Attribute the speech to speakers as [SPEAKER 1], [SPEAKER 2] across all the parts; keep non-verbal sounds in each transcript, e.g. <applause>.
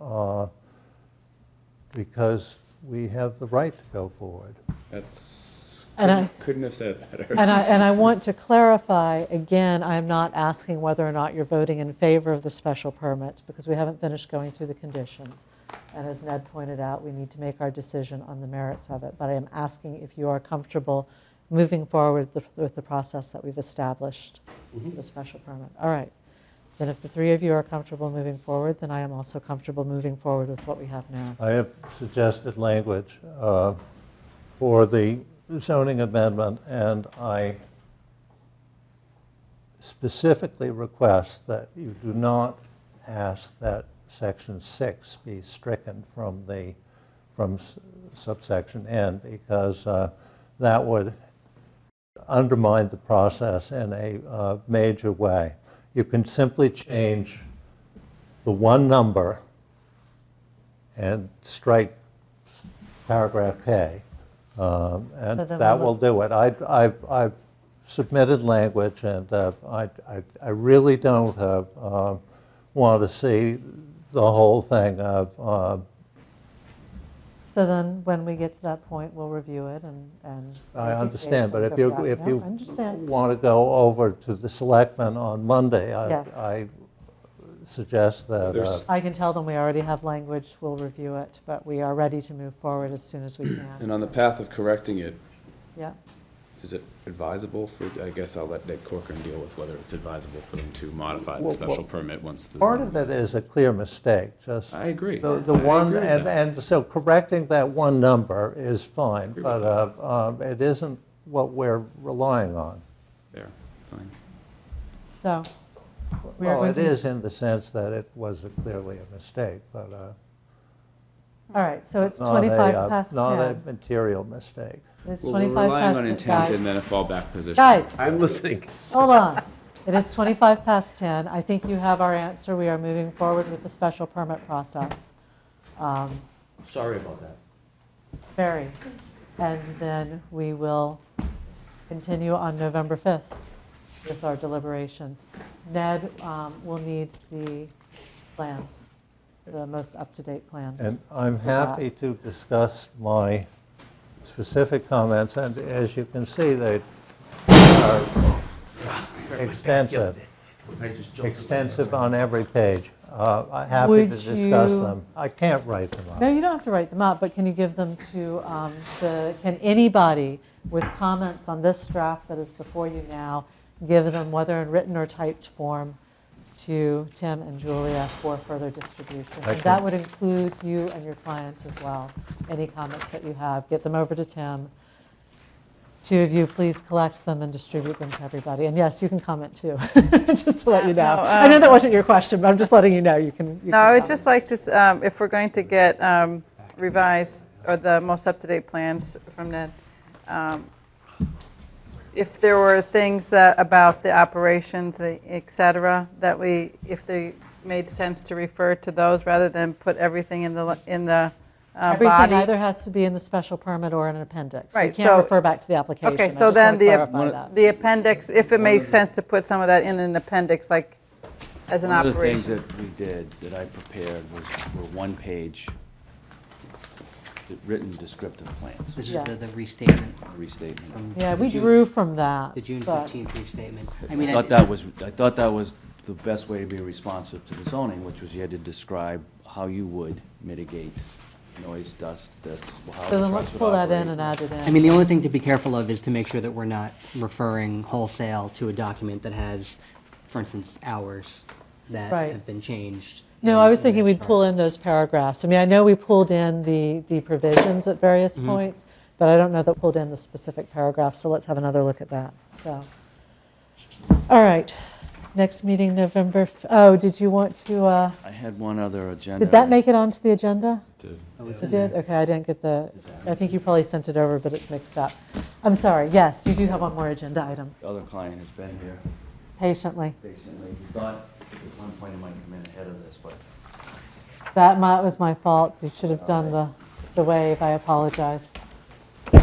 [SPEAKER 1] uh, because we have the right to go forward.
[SPEAKER 2] That's,
[SPEAKER 3] And
[SPEAKER 2] couldn't-
[SPEAKER 3] I-
[SPEAKER 2] couldn't have said it better.
[SPEAKER 3] And
[SPEAKER 2] <laughs>
[SPEAKER 3] I, and I want to clarify, again, I'm not asking whether or not you're voting in favor of the special permit, because we haven't finished going through the conditions. And as Ned pointed out, we need to make our decision on the merits of it. But I am asking if you are comfortable moving forward with the- with the process that we've established
[SPEAKER 1] Mm-hmm.
[SPEAKER 3] for the special permit. All right. Then if the three of you are comfortable moving forward, then I am also comfortable moving forward with what we have now.
[SPEAKER 1] I have suggested language uh, for the zoning amendment, and I specifically request that you do not ask that section six be stricken from the, from s- subsection N, because uh, that would undermine the process in a uh, major way. You can simply change the one number and strike paragraph K, um, and
[SPEAKER 3] So then
[SPEAKER 1] that
[SPEAKER 3] we'll-
[SPEAKER 1] will do it. I, I, I submitted language, and uh, I, I, I really don't uh, um, want to see the whole thing of, um,
[SPEAKER 3] So then, when we get to that point, we'll review it and, and.
[SPEAKER 1] I
[SPEAKER 3] make a
[SPEAKER 1] understand,
[SPEAKER 3] case
[SPEAKER 1] but
[SPEAKER 3] and
[SPEAKER 1] if
[SPEAKER 3] go
[SPEAKER 1] you,
[SPEAKER 3] back.
[SPEAKER 1] if
[SPEAKER 3] No,
[SPEAKER 1] you
[SPEAKER 3] I understand.
[SPEAKER 1] want to go over to the selectmen on Monday, I,
[SPEAKER 3] Yes.
[SPEAKER 1] I suggest that, uh,
[SPEAKER 2] There's-
[SPEAKER 3] I can tell them we already have language, we'll review it, but we are ready to move forward as soon as
[SPEAKER 1] <clears throat>
[SPEAKER 3] we
[SPEAKER 2] And
[SPEAKER 3] can.
[SPEAKER 2] on the path of correcting it,
[SPEAKER 3] Yeah,
[SPEAKER 2] is it advisable for, I guess I'll let Nick Corcoran deal with whether it's advisable for them to modify the
[SPEAKER 1] Well,
[SPEAKER 2] special
[SPEAKER 1] well,
[SPEAKER 2] permit once the.
[SPEAKER 1] part
[SPEAKER 2] zoning-
[SPEAKER 1] of it is a clear mistake, just.
[SPEAKER 2] I agree.
[SPEAKER 1] The, the
[SPEAKER 2] I agree
[SPEAKER 1] one,
[SPEAKER 2] with
[SPEAKER 1] and,
[SPEAKER 2] that.
[SPEAKER 1] and so correcting that one number is fine,
[SPEAKER 2] Agree with
[SPEAKER 1] but uh, um, it isn't what we're relying on.
[SPEAKER 2] There, fine.
[SPEAKER 3] so, We are
[SPEAKER 1] Well,
[SPEAKER 3] going
[SPEAKER 1] it
[SPEAKER 3] to-
[SPEAKER 1] is in the sense that it was clearly a mistake, but uh,
[SPEAKER 3] all right, so it's
[SPEAKER 1] not a,
[SPEAKER 3] 25
[SPEAKER 1] uh,
[SPEAKER 3] past
[SPEAKER 1] Not a
[SPEAKER 3] 10.
[SPEAKER 1] material mistake.
[SPEAKER 3] It's
[SPEAKER 2] Well, we're
[SPEAKER 3] 25
[SPEAKER 2] relying
[SPEAKER 3] past
[SPEAKER 2] on
[SPEAKER 3] 10,
[SPEAKER 2] intent and then
[SPEAKER 3] guys.
[SPEAKER 2] a fallback position.
[SPEAKER 3] Guys.
[SPEAKER 2] I'm listening.
[SPEAKER 3] Hold on. It is 25 past 10. I think you have our answer. We are moving forward with the special permit process. Um,
[SPEAKER 4] Sorry about that.
[SPEAKER 3] Very. And then we will continue on November 5th with our deliberations. Ned um, will need the plans, the most up-to-date plans.
[SPEAKER 1] And I'm happy to discuss my specific comments, and as you can see, they are extensive,
[SPEAKER 4] I just jumped.
[SPEAKER 1] extensive on every page. Uh, I'm happy to
[SPEAKER 3] Would
[SPEAKER 1] discuss
[SPEAKER 3] you-
[SPEAKER 1] them. I can't write them
[SPEAKER 3] No,
[SPEAKER 1] up.
[SPEAKER 3] you don't have to write them up, but can you give them to um, the, can anybody with comments on this draft that is before you now, give them whether in written or typed form to Tim and Julia for further distribution? And that
[SPEAKER 1] Excellent.
[SPEAKER 3] would include you and your clients as well, any comments that you have. Get them over to Tim. Two of you, please collect them and distribute them to everybody. And yes, you can comment too, <laughs> just to let you know.
[SPEAKER 5] No,
[SPEAKER 3] I know
[SPEAKER 5] um,
[SPEAKER 3] that wasn't your question, but I'm just letting you know, you can. you
[SPEAKER 5] No,
[SPEAKER 3] can
[SPEAKER 5] I would
[SPEAKER 3] comment.
[SPEAKER 5] just like to, s- um, if we're going to get um, revised, or the most up-to-date plans from Ned, um, if there were things that, about the operations, the et cetera, that we, if they made sense to refer to those rather than put everything in the, l- in the uh,
[SPEAKER 3] Everything
[SPEAKER 5] body.
[SPEAKER 3] either has to be in the special permit or in an appendix. We
[SPEAKER 5] Right,
[SPEAKER 3] can't
[SPEAKER 5] so-
[SPEAKER 3] refer back to the application.
[SPEAKER 5] Okay,
[SPEAKER 3] I
[SPEAKER 5] so
[SPEAKER 3] just
[SPEAKER 5] then
[SPEAKER 3] want to
[SPEAKER 5] the, ap-
[SPEAKER 3] clarify that.
[SPEAKER 5] the appendix, if it makes sense to put some of that in an appendix, like, as an
[SPEAKER 6] One of the things
[SPEAKER 5] operation.
[SPEAKER 6] that we did, that I prepared, was, were one-page d- written descriptive plans,
[SPEAKER 4] This is
[SPEAKER 3] Yeah.
[SPEAKER 4] the the restatement
[SPEAKER 6] a restatement.
[SPEAKER 4] from.
[SPEAKER 3] Yeah,
[SPEAKER 4] the
[SPEAKER 3] we
[SPEAKER 4] June-
[SPEAKER 3] drew from that.
[SPEAKER 4] The June
[SPEAKER 3] but-
[SPEAKER 4] 15th restatement. I mean,
[SPEAKER 6] I thought that was, I thought that was the best way to be responsive to the zoning, which was you had to describe how you would mitigate noise, dust, this, how
[SPEAKER 3] So
[SPEAKER 6] the
[SPEAKER 3] then
[SPEAKER 6] trucks
[SPEAKER 3] let's
[SPEAKER 6] would
[SPEAKER 3] pull that in
[SPEAKER 6] operate.
[SPEAKER 3] and add it in.
[SPEAKER 4] I mean, the only thing to be careful of is to make sure that we're not referring wholesale to a document that has, for instance, hours that
[SPEAKER 3] Right.
[SPEAKER 4] have been changed.
[SPEAKER 3] No, I was thinking we'd pull
[SPEAKER 4] in. that chart.
[SPEAKER 3] in those paragraphs. I mean, I know we pulled in the, the provisions at various
[SPEAKER 4] Mm-hmm.
[SPEAKER 3] points, but I don't know that pulled in the specific paragraph, so let's have another look at that, so. All right, next meeting, November, f- oh, did you want to, uh,
[SPEAKER 6] I had one other agenda.
[SPEAKER 3] did that make it onto the agenda?
[SPEAKER 4] Oh, it's
[SPEAKER 3] You
[SPEAKER 4] in there.
[SPEAKER 3] did? Okay, I didn't get the, I think you probably sent it over, but it's mixed up. I'm sorry, yes, you do have one more agenda item,
[SPEAKER 6] The other client has been here
[SPEAKER 3] patiently.
[SPEAKER 6] patiently. He thought at one point he might come in ahead of this, but
[SPEAKER 3] That mi- was my fault, you should have done the, the wave, I apologize.
[SPEAKER 6] I'm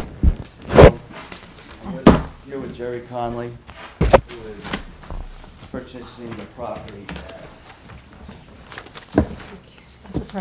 [SPEAKER 6] with- Here with Jerry Conley, who is purchasing the property at